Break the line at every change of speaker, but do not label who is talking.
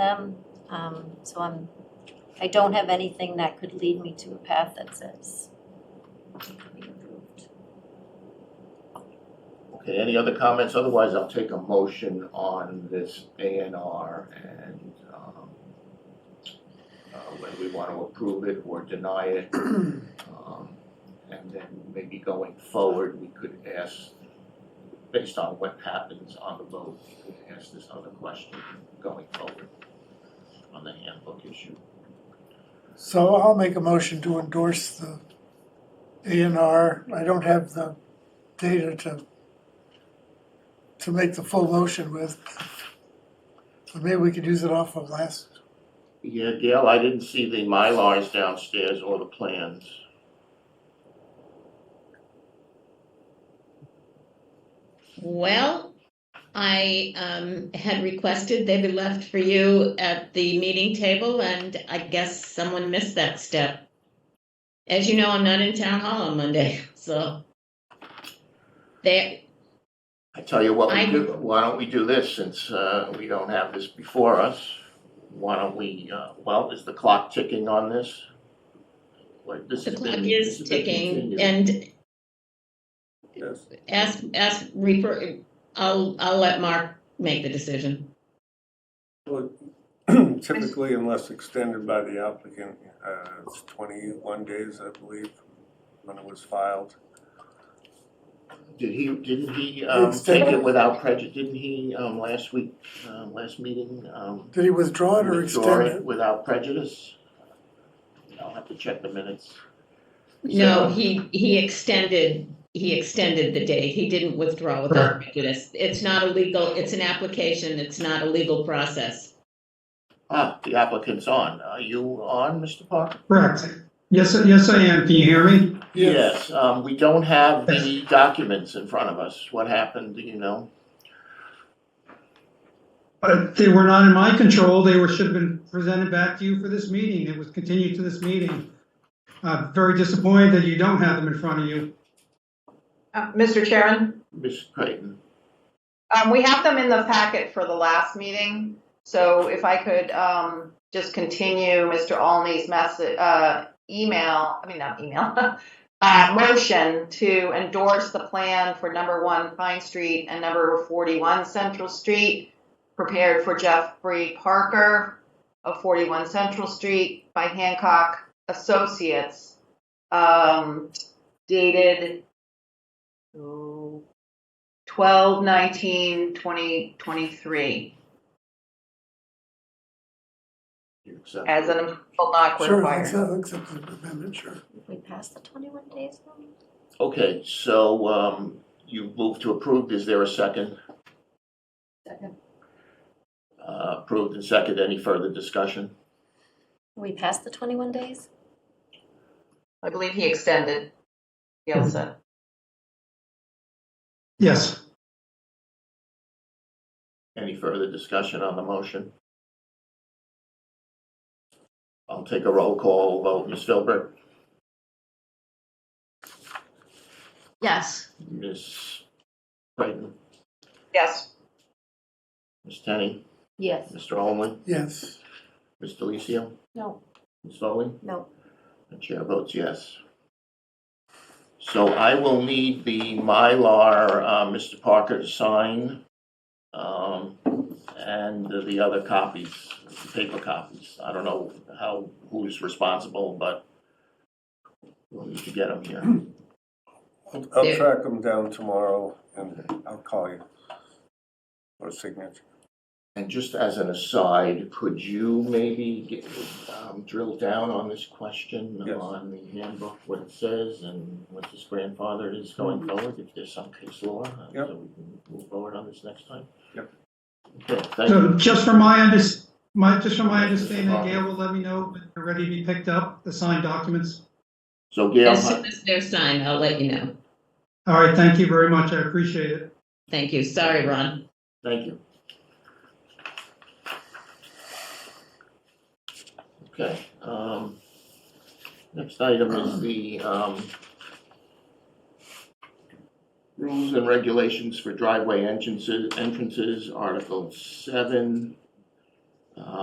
them. Um, so I'm, I don't have anything that could lead me to a path that says it could be approved.
Okay, any other comments? Otherwise, I'll take a motion on this A and R and, um, uh, whether we want to approve it or deny it. Um, And then maybe going forward, we could ask, based on what happens on the vote, we could ask this other question going forward on the handbook issue.
So I'll make a motion to endorse the A and R. I don't have the data to, to make the full motion with. But maybe we could use it off of last,
Yeah, Gail, I didn't see the Mylars downstairs or the plans.
Well, I um, had requested they be left for you at the meeting table, and I guess someone missed that step. As you know, I'm not in town hall on Monday, so they,
I tell you what we
I-
do, why don't we do this, since uh, we don't have this before us? Why don't we, uh, well, is the clock ticking on this? Like, this
the
has been-
clock
this
is
has been
ticking,
continued.
and
Yes.
ask, ask Reaper, I'll, I'll let Mark make the decision.
Well, Typically, unless extended by the applicant, uh, it's 21 days, I believe, when it was filed.
Did he, didn't he um,
It's
take it
ticking.
without prejudice, didn't he, um, last week, um, last meeting? um,
did he withdraw it or
withdraw
extend
it
it?
Without prejudice? I'll have to check the minutes. So-
No, he, he extended, he extended the date. He didn't withdraw without prejudice. It's not a legal, it's an application, it's not a legal process.
Ah, the applicant's on. Are you on, Mr. Parker?
Correct. Yes, yes, I am. Can you hear me?
Yes, um, we don't have the documents in front of us. What happened, do you know?
Uh, They were not in my control. They were, should have been presented back to you for this meeting. It was continued to this meeting. Uh, Very disappointed that you don't have them in front of you.
Uh, Mr. Chairman,
Ms. Creighton,
um, we have them in the packet for the last meeting. So if I could um, just continue Mr. Alney's message, uh, email, I mean, not email, uh, motion to endorse the plan for number one Pine Street and number 41 Central Street, prepared for Jeffrey Parker of 41 Central Street by Hancock Associates, um, dated, oh, 12, 19, 20, 23,
you accept?
as an amendment not
Sure,
required.
accept, accept the amendment, sure.
If we pass the twenty-one days limit?
Okay, so, um, you moved to approved. Is there a second?
Second.
Uh, approved and second. Any further discussion?
We pass the twenty-one days?
I believe he extended, Gail said.
Yes.
Any further discussion on the motion? I'll take a roll call vote. Ms. Philbrick?
Yes.
Ms. Creighton?
Yes,
Ms. Tenney?
Yes.
Mr. Holman?
Yes.
Ms. Delicio?
No.
Ms. Foley?
No.
The chair votes yes. So I will need the Mylar, uh, Mr. Parker to sign, um, and the other copies, the paper copies. I don't know how, who's responsible, but we'll need to get them here.
I'll I'll
Yeah.
track them down tomorrow and I'll call you for a signature.
And just as an aside, could you maybe get- um, drill down on this question
Yes.
on the handbook, what it says and what this grandfather is going forward, if there's some case law? uh,
Yep.
So we can move forward on this next time?
Yep.
Okay, thank you.
So just from my under, my, just from my understanding, Gail will let me know when they're ready to be picked up, the signed documents.
So Gail,
As soon as they're signed, I'll let you know.
All right, thank you very much. I appreciate it.
Thank you. Sorry, Ron.
thank you. Okay, um, next item is the, um, rules and regulations for driveway entrances, entrances, Article seven. Uh,